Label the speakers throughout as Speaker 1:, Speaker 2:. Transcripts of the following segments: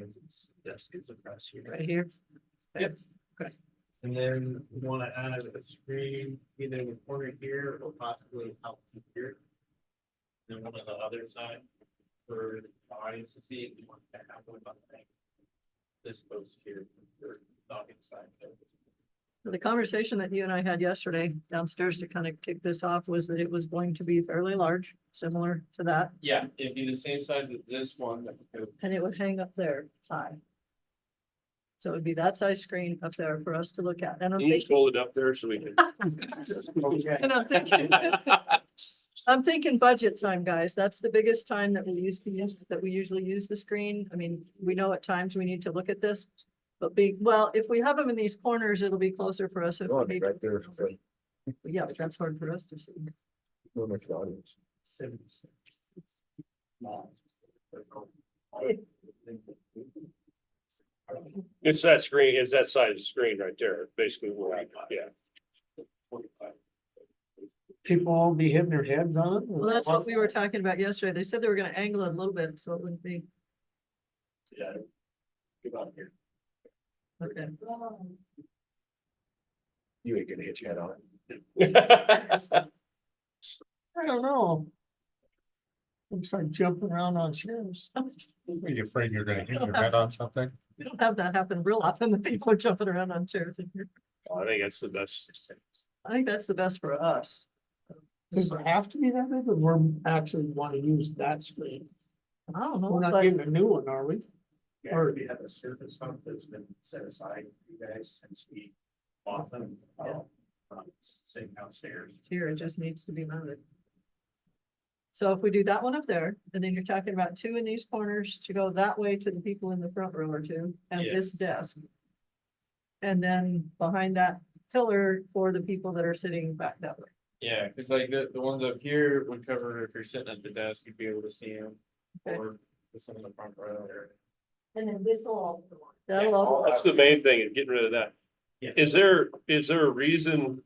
Speaker 1: Because Desk is across here.
Speaker 2: right here.
Speaker 1: Yep. And then we wanna add a screen either in the corner here or possibly out here. Then one on the other side for the audience to see if you want to have one about that. This post here for the audience side.
Speaker 2: The conversation that you and I had yesterday downstairs to kind of kick this off was that it was going to be fairly large, similar to that,
Speaker 1: Yeah, it'd be the same size as this one that we could
Speaker 2: and it would hang up there high. So it'd be that size screen up there for us to look at. And I'm
Speaker 3: Can you just
Speaker 2: thinking,
Speaker 3: hold it up there so we can?
Speaker 2: and I'm thinking, I'm thinking budget time, guys. That's the biggest time that we used to use, that we usually use the screen. I mean, we know at times we need to look at this. But be, well, if we have them in these corners, it'll be closer for us. if
Speaker 4: Oh,
Speaker 2: we
Speaker 4: it'd be
Speaker 2: need to-
Speaker 4: right there.
Speaker 2: Yeah, but that's hard for us to see.
Speaker 4: Don't make the audience.
Speaker 1: send.
Speaker 3: It's that screen, it's that size screen right there, basically, what we- yeah.
Speaker 1: People all be hitting their heads on it?
Speaker 2: Well, that's what we were talking about yesterday. They said they were gonna angle it a little bit, so it wouldn't be,
Speaker 1: Yeah. Get out here.
Speaker 2: okay.
Speaker 4: You ain't gonna hit your head on it.
Speaker 1: I don't know. Looks like jumping around on chairs.
Speaker 5: Are you afraid you're gonna hit your head on something?
Speaker 2: We don't have that happen real often. The people are jumping around on chairs in here.
Speaker 3: I think that's the best.
Speaker 2: I think that's the best for us.
Speaker 1: Does it have to be that big or we're actually want to use that screen?
Speaker 2: I don't know,
Speaker 1: We're not
Speaker 2: but
Speaker 1: getting a new one, are we? Or we have a service fund that's been set aside for you guys since we bought them. uh,
Speaker 2: Yeah.
Speaker 1: Sitting downstairs.
Speaker 2: here it just needs to be mounted. So if we do that one up there, and then you're talking about two in these corners to go that way to the people in the front row or two, and
Speaker 1: Yeah.
Speaker 2: this desk. And then behind that pillar for the people that are sitting back that way.
Speaker 1: Yeah, cause like the, the ones up here would cover if you're sitting at the desk, you'd be able to see them.
Speaker 2: Okay.
Speaker 1: Or some in the front row or.
Speaker 6: And then this will.
Speaker 2: That'll all,
Speaker 3: That's the main thing, is getting rid of that.
Speaker 1: Yeah.
Speaker 3: Is there, is there a reason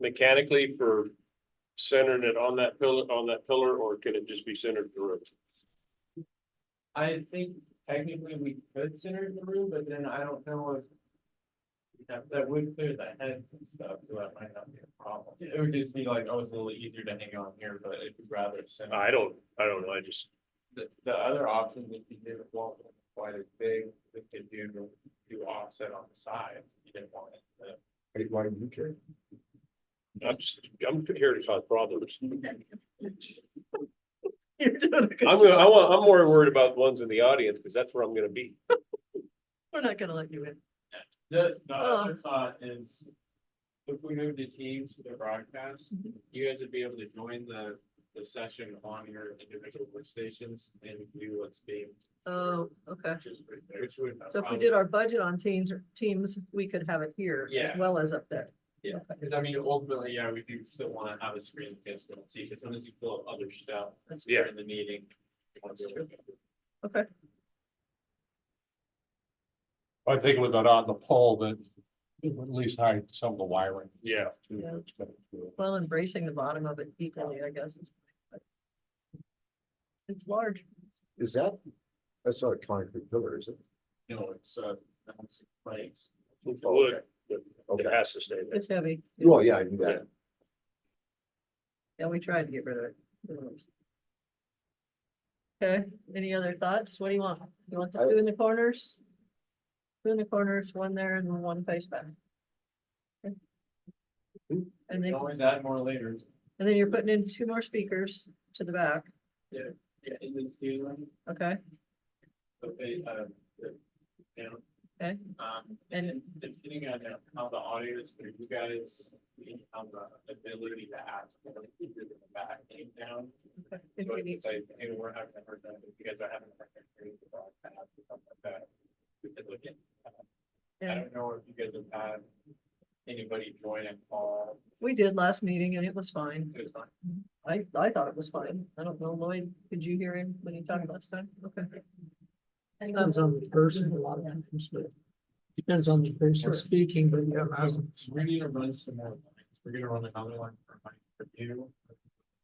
Speaker 3: mechanically for centering it on that pillar, on that pillar, or can it just be centered to the roof?
Speaker 1: I think technically we could center it in the room, but then I don't know if. That, that would clear the heads and stuff, so that might not be a problem. It would just be like, oh, it's a little easier to hang on here, but if you'd rather center.
Speaker 3: I don't, I don't know, I just,
Speaker 1: The, the other option, if you didn't want it quite as big, we could do, do offset on the sides, if you didn't want it. to-
Speaker 4: Hey, Why do you care?
Speaker 3: I'm just, I'm here to cause problems.
Speaker 2: you're doing a good
Speaker 3: I'm,
Speaker 2: job.
Speaker 3: gonna- I want, I'm more worried about the ones in the audience, because that's where I'm gonna be.
Speaker 2: We're not gonna let you in.
Speaker 1: The, the
Speaker 2: Oh.
Speaker 1: other thought is, if we move to Teams for the broadcast,
Speaker 2: Mhm.
Speaker 1: you guys would be able to join the, the session on your individual workstations and view what's being.
Speaker 2: Oh, okay.
Speaker 1: Which is pretty- which would. um,
Speaker 2: So if we did our budget on teams, teams, we could have it here as
Speaker 1: Yeah.
Speaker 2: well as up there.
Speaker 1: Yeah, because I mean, ultimately, yeah, we do still want to have a screen that kids don't see, because sometimes you pull up other stuff
Speaker 3: Yeah.
Speaker 1: during the meeting. You wanna be able to-
Speaker 2: Okay,
Speaker 5: I think we got on the poll that it would at least hide some of the wiring.
Speaker 3: Yeah.
Speaker 2: Yeah. well, embracing the bottom of it equally, I guess. is- It's large.
Speaker 4: Is that, that's not a concrete pillar, is it?
Speaker 1: You know, it's, uh, it's like,
Speaker 3: Wood, it
Speaker 4: Okay.
Speaker 3: has to stay there.
Speaker 2: It's heavy.
Speaker 4: Well, yeah, I knew that.
Speaker 2: Yeah, we tried to get rid of it. Okay, any other thoughts? What do you want? You want the two in the corners? Two in the corners, one there and one face back. Okay. And
Speaker 1: you
Speaker 2: then,
Speaker 1: can always add more later.
Speaker 2: and then you're putting in two more speakers to the back,
Speaker 1: Yeah, and then ceiling,
Speaker 2: okay?
Speaker 1: okay, uh, the- you know,
Speaker 2: Okay,
Speaker 1: Um,
Speaker 2: And-
Speaker 1: and depending on how the audio is for you guys, we have the ability to act. Back and down.
Speaker 2: if
Speaker 1: So
Speaker 2: we
Speaker 1: if
Speaker 2: need
Speaker 1: it's like, hey, we're having a hard time, if you guys are having a hard time hearing the broadcast or something like that. We could look at, I
Speaker 2: Yeah,
Speaker 1: don't know if you guys have had anybody join and call,
Speaker 2: we did last meeting and it was fine.
Speaker 1: it was not,
Speaker 2: I, I thought it was fine. I don't know, Lloyd, did you hear him when he talked last time? Okay.
Speaker 7: Depends on the person, a lot of times, but depends on the person speaking, but yeah, I was-
Speaker 1: we're gonna run some more lines, we're gonna run another one for my, for you.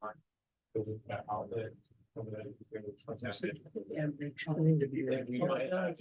Speaker 1: Line For the outlet, for the- for the-
Speaker 7: I'm trying to be.
Speaker 1: Then we might have